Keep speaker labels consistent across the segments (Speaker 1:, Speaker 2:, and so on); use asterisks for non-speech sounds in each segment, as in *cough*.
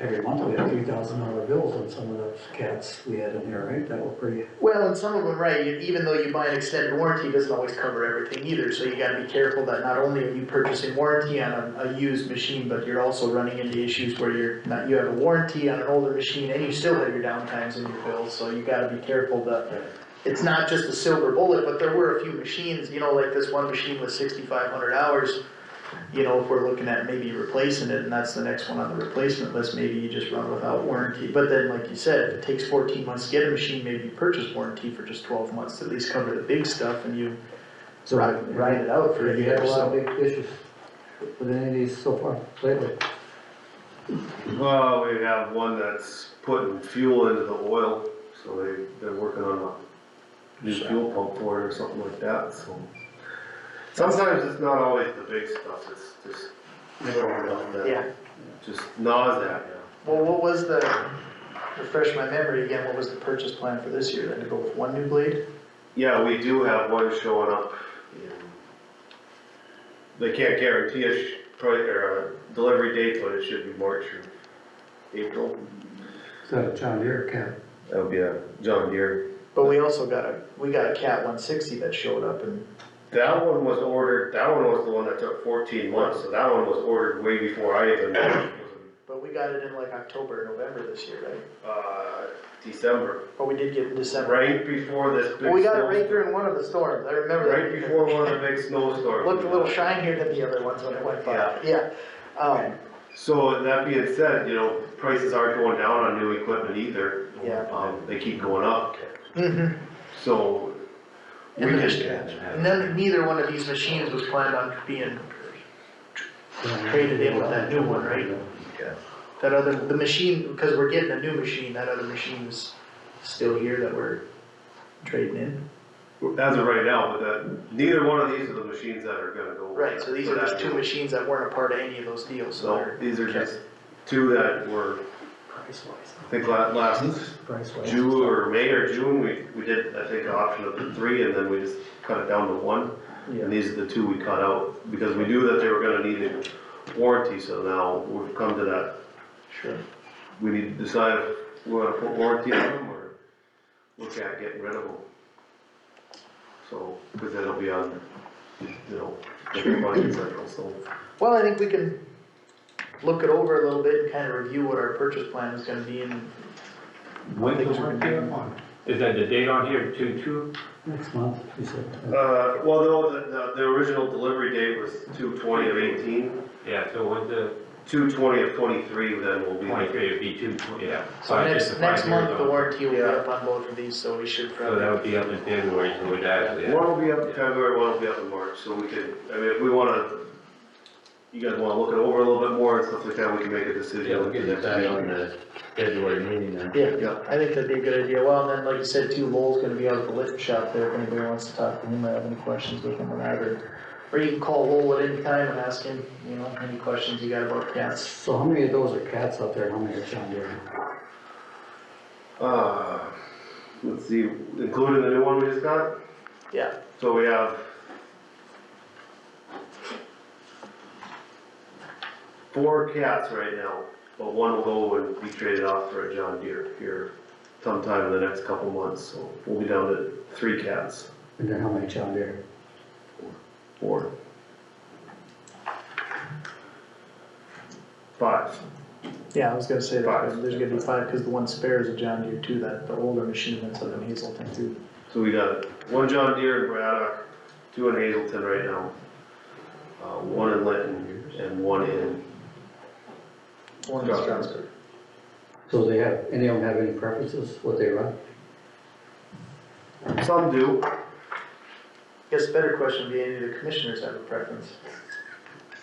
Speaker 1: Every month we had three thousand dollar bills on some of those cats we had in there, right? That were pretty,
Speaker 2: Well, and some of them, right, you- even though you buy an extended warranty, it doesn't always cover everything either, so you gotta be careful that not only are you purchasing warranty on a, a used machine, but you're also running into issues where you're not, you have a warranty on an older machine and you still have your downtimes in your bills, so you gotta be careful that it's not just a silver bullet, but there were a few machines, you know, like this one machine with sixty-five hundred hours. You know, if we're looking at maybe replacing it, and that's the next one on the replacement list, maybe you just run without warranty. But then, like you said, if it takes fourteen months to get a machine, maybe you purchase warranty for just twelve months to at least cover the big stuff and you
Speaker 1: So-
Speaker 2: ride, ride it out for a
Speaker 1: you had
Speaker 2: year,
Speaker 1: a lot of
Speaker 2: so.
Speaker 1: big issues with any of these so far lately.
Speaker 3: Well, we have one that's putting fuel into the oil, so they, they're working on a new fuel pump for it or something like that, so. Sometimes it's not always the big stuff, it's just, stuff that
Speaker 2: Yeah,
Speaker 3: just gnaws at you.
Speaker 2: well, what was the, refresh my memory again, what was the purchase plan for this year, then to go with one new blade?
Speaker 3: Yeah, we do have one showing up in, they can't guarantee a sh- pri or a delivery date, but it should be March or April.
Speaker 1: Is that a John Deere cat?
Speaker 3: That would be a John Deere.
Speaker 2: But we also got a, we got a Cat one sixty that showed up and
Speaker 3: That one was ordered, that one was the one that took fourteen months, so that one was ordered way before I even,
Speaker 2: But we got it in like October, November this year, right?
Speaker 3: uh, December,
Speaker 2: Or we did get it in December.
Speaker 3: right before this big.
Speaker 2: Well, we got it right
Speaker 3: snowstorm.
Speaker 2: during one of the storms, I remember that.
Speaker 3: Right before one of the big snowstorms.
Speaker 2: Looked a little shinier than the other ones when it went by,
Speaker 3: Yeah.
Speaker 2: yeah. Um,
Speaker 3: So that being said, you know, prices aren't going down on new equipment either.
Speaker 2: Yeah.
Speaker 3: Um, they keep going up,
Speaker 2: mhm.
Speaker 3: so. we
Speaker 2: And the-
Speaker 3: just-
Speaker 2: And then neither one of these machines was planned on being, Traded in with that new one, right? that other, the machine, because we're getting a new machine, that other machine's still here that we're trading in.
Speaker 3: As of right now, but that, neither one of these are the machines that are gonna go.
Speaker 2: Right, so these
Speaker 3: for
Speaker 2: are
Speaker 3: that
Speaker 2: just two
Speaker 3: deal.
Speaker 2: machines that weren't a part of any of those deals, so
Speaker 3: So
Speaker 2: they're.
Speaker 3: these are just two that were,
Speaker 1: Price
Speaker 3: I
Speaker 1: wise.
Speaker 3: think la- last
Speaker 1: Price wise.
Speaker 3: June or May or June, we, we did, I think, an option of the three and then we just cut it down to one. And these are the two we cut out because we knew that they were gonna need a warranty, so now we've come to that
Speaker 2: Sure.
Speaker 3: we need to decide if we wanna put warranty on them or look at getting rid of them. So, cause that'll be on, you know, different budget cycle, so.
Speaker 2: Well, I think we can look it over a little bit and kind of review what our purchase plan is gonna be and
Speaker 4: When's
Speaker 2: things we're gonna do.
Speaker 4: Is that the date on here, two, two?
Speaker 1: Next month, you said.
Speaker 3: Uh, well, no, the, the, the original delivery date was two twenty of eighteen.
Speaker 4: Yeah, so when's the
Speaker 3: Two twenty of twenty-three then will be.
Speaker 4: twenty-three, it'd be two, tw- yeah.
Speaker 2: So
Speaker 4: Five- just
Speaker 2: next,
Speaker 4: the
Speaker 2: next
Speaker 4: five years
Speaker 2: month, the
Speaker 4: on.
Speaker 2: warranty will be
Speaker 3: Yeah.
Speaker 2: up on both of these, so we should
Speaker 4: So that
Speaker 2: probably,
Speaker 4: would be up in January, so we'd actually, have-
Speaker 3: One will be up in February, one will be up in March, so we could, I mean, if we wanna, you guys wanna look it over a little bit more and stuff like that, we can make a decision.
Speaker 5: Yeah, we'll get that back on the February meeting then.
Speaker 2: yeah,
Speaker 3: Yeah,
Speaker 2: I think that'd be a good idea. Well, and then, like you said, too, Lowell's gonna be out at the lift shop there, if anybody wants to talk to him, or have any questions with him or that, or, or you can call Lowell at any time and ask him, you know, any questions you got about cats.
Speaker 1: So how many of those are cats out there? and How many are John Deere?
Speaker 3: uh, let's see, including the new one we just got?
Speaker 2: Yeah,
Speaker 3: So we have four cats right now, but one will go and be traded off for a John Deere here sometime in the next couple months, so we'll be down to three cats,
Speaker 1: And then how many John Deere?
Speaker 3: four. Five,
Speaker 2: yeah, I was gonna say that,
Speaker 3: Five.
Speaker 2: there's gonna be five, cause the one spare is a John Deere too, that, the older machine that's up in Hazelton too.
Speaker 3: so we got one John Deere in Braddock, two in Hazelton right now, uh, one in Linton, and one in,
Speaker 2: One is
Speaker 3: Strasburg.
Speaker 2: Strasburg.
Speaker 1: So they have, any of them have any preferences, what they run?
Speaker 3: some do,
Speaker 2: Guess a better question would be, any of the commissioners have a preference?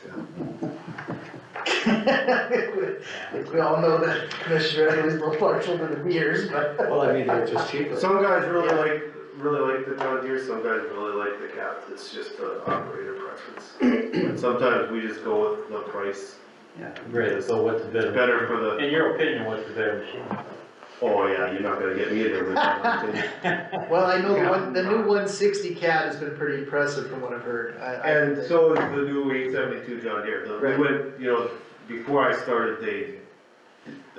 Speaker 2: Like, *laughs* we all know that commissioner is always more partial to the beers, but.
Speaker 1: Well, I mean, they're just cheaper.
Speaker 3: Some guys really like, really like the John Deere, some guys really like the Cap, it's just the operator preference. And Sometimes we just go with the price,
Speaker 5: Great, so what's the
Speaker 3: It's
Speaker 5: better?
Speaker 3: better for the,
Speaker 5: In your opinion, what's the better machine?
Speaker 3: oh yeah, you're not gonna get me a different.
Speaker 2: Well, I know the one, the new one sixty cat has been pretty impressive from what I've heard. I- I-
Speaker 3: And so is the new eight seventy-two John Deere, the, we
Speaker 2: Right.
Speaker 3: went, you know, before I started, they